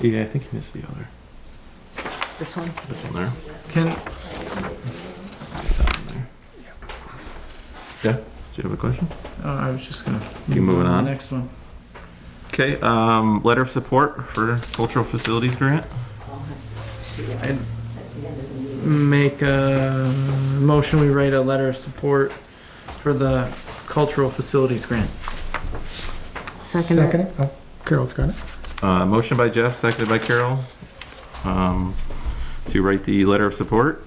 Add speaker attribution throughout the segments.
Speaker 1: Yeah, I think he missed the other.
Speaker 2: This one?
Speaker 1: This one there.
Speaker 3: Can,
Speaker 1: That one there. Yeah. Do you have a question?
Speaker 3: uh, I was just gonna.
Speaker 1: You moving on?
Speaker 3: The next one.
Speaker 1: Okay. Um, letter of support for cultural facilities grant.
Speaker 3: I'd make a motion, we write a letter of support for the cultural facilities grant.
Speaker 2: Second it.
Speaker 4: it. Oh, Carol's got it.
Speaker 1: Uh, motion by Jeff, seconded by Carol, um, to write the letter of support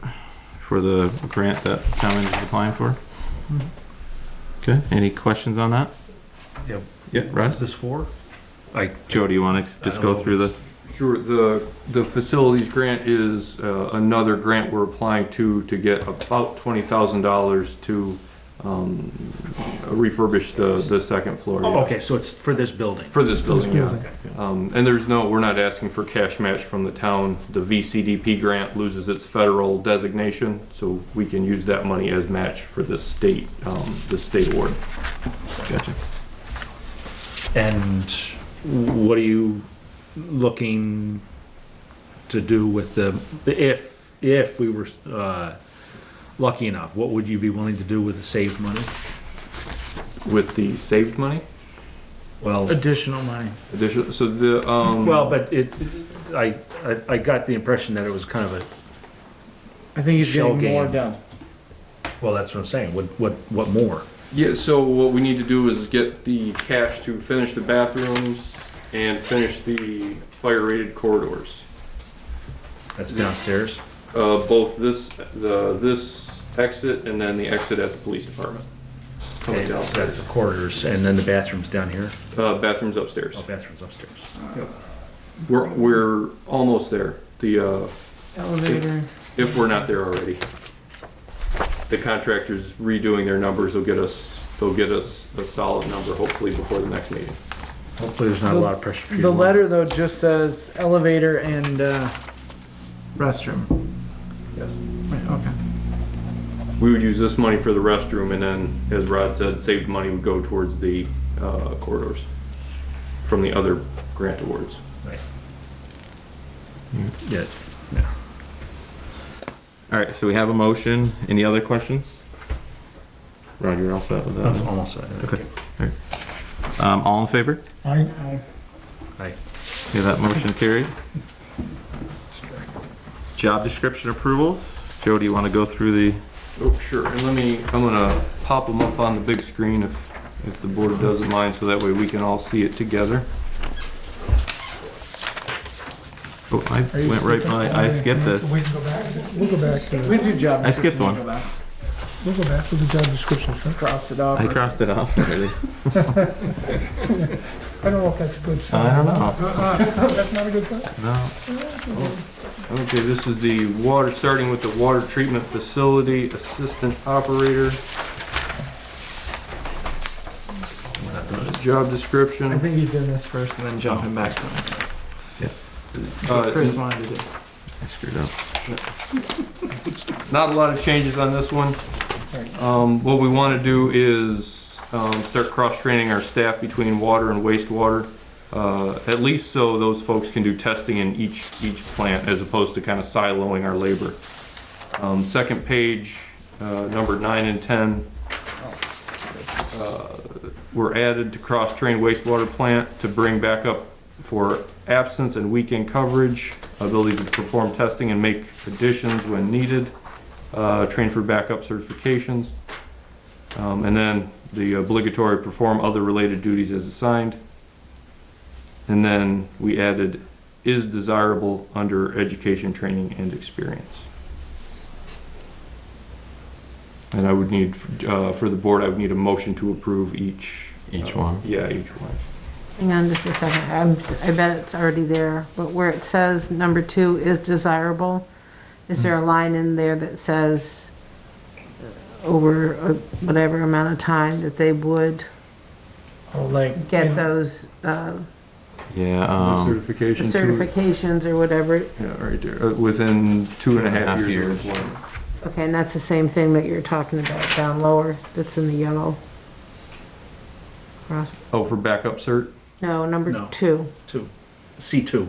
Speaker 1: for the grant that town is applying for. Okay. Any questions on that?
Speaker 5: Yep.
Speaker 1: Yeah, Russ.
Speaker 5: this for? I,
Speaker 1: Joe, do you want to just go through the?
Speaker 6: Sure, the, the facilities grant is uh, another grant we're applying to, to get about twenty thousand dollars to um, refurbish the, the second floor. yeah.
Speaker 5: Oh, okay, so it's for this building.
Speaker 6: For this
Speaker 4: This
Speaker 6: building, yeah.
Speaker 4: building.
Speaker 6: Um, And there's no, we're not asking for cash match from the town. The VCDP grant loses its federal designation, so we can use that money as match for the state, um, the state award.
Speaker 1: Gotcha.
Speaker 5: And what are you looking to do with the, if, if we were, uh, lucky enough, what would you be willing to do with the saved money?
Speaker 6: With the saved money?
Speaker 5: Well,
Speaker 3: Additional money.
Speaker 6: Addition, so the, um.
Speaker 5: Uh, well, but it, I, I, I got the impression that it was kind of a
Speaker 3: I think he's
Speaker 5: Shell
Speaker 3: getting more
Speaker 5: game.
Speaker 3: done.
Speaker 5: Well, that's what I'm saying. What, what, what more?
Speaker 6: Yeah, so what we need to do is get the cash to finish the bathrooms and finish the fire-rated corridors.
Speaker 5: That's downstairs.
Speaker 6: Uh, both this, the, this exit and then the exit at the police department. Coming
Speaker 5: And That's
Speaker 6: downstairs.
Speaker 5: the corridors, and then the bathrooms down here.
Speaker 6: Uh, bathrooms upstairs.
Speaker 5: Oh, bathrooms upstairs.
Speaker 6: We're, we're almost there. The, uh,
Speaker 2: Elevator.
Speaker 6: if we're not there already. The contractors redoing their numbers will get us, they'll get us a solid number hopefully before the next meeting.
Speaker 5: Hopefully, there's not a lot of pressure. for you
Speaker 3: The
Speaker 5: to-
Speaker 3: letter though just says elevator and, uh, restroom.
Speaker 6: Yes.
Speaker 3: Right, okay.
Speaker 6: We would use this money for the restroom and then, as Rod said, saved money would go towards the uh, corridors from the other grant awards.
Speaker 5: Yeah.
Speaker 1: All right, so we have a motion. Any other questions? Roger, you're all set with
Speaker 5: That's
Speaker 1: that?
Speaker 5: almost that.
Speaker 1: Uh-huh. Okay. Um, all in favor?
Speaker 4: I,
Speaker 1: Okay, that motion carries. Job description approvals. Joe, do you want to go through the,
Speaker 6: Oh, sure, and let me, I'm gonna pop them up on the big screen if, if the board doesn't mind, so that way we can all see it together.
Speaker 1: oh, I
Speaker 4: are you
Speaker 1: went right
Speaker 4: skipping?
Speaker 1: by, I skipped
Speaker 4: Can I
Speaker 1: this.
Speaker 4: have to Wait and go back. We'll go back
Speaker 3: We
Speaker 4: to,
Speaker 3: do job.
Speaker 1: I skipped
Speaker 3: descriptions,
Speaker 1: one.
Speaker 3: go back,
Speaker 4: we'll go back to the job description. first.
Speaker 3: Cross it off.
Speaker 1: I crossed it off already.
Speaker 4: I don't know if that's a good sign.
Speaker 1: I don't know.
Speaker 4: That's not a good sign?
Speaker 1: No.
Speaker 6: Okay, this is the water, starting with the water treatment facility assistant operator. Job description.
Speaker 3: I think he's doing this first and then jumping back to it. That's what
Speaker 6: Uh,
Speaker 3: Chris wanted to do.
Speaker 1: I screwed up.
Speaker 6: Not a lot of changes on this one. Um, what we want to do is, um, start cross-training our staff between water and wastewater. Uh, at least so those folks can do testing in each, each plant as opposed to kind of siloing our labor. Um, second page, uh, number nine and ten. uh, Were added to cross-train wastewater plant to bring back up for absence and weekend coverage, ability to perform testing and make additions when needed, uh, train for backup certifications. Um, and then the obligatory perform other related duties as assigned. And then we added is desirable under education, training, and experience. And I would need, uh, for the board, I would need a motion to approve each. uh,
Speaker 1: Each one.
Speaker 6: Yeah, each one.
Speaker 2: Hang on just a second. I'm, I bet it's already there, but where it says number two is desirable, is there a line in there that says uh, over a- whatever amount of time that they would
Speaker 3: Oh, like. you
Speaker 2: get
Speaker 3: know,
Speaker 2: those, uh,
Speaker 1: Yeah, um,
Speaker 6: Certification. to-
Speaker 2: certifications or whatever?
Speaker 6: Yeah, right there, Uh, within two and a half years of employment.
Speaker 2: Okay, and that's the same thing that you're talking about down lower, that's in the yellow. Cross-
Speaker 6: Oh, for backup cert?
Speaker 2: No,
Speaker 5: No.
Speaker 2: number two.
Speaker 5: Two. C two.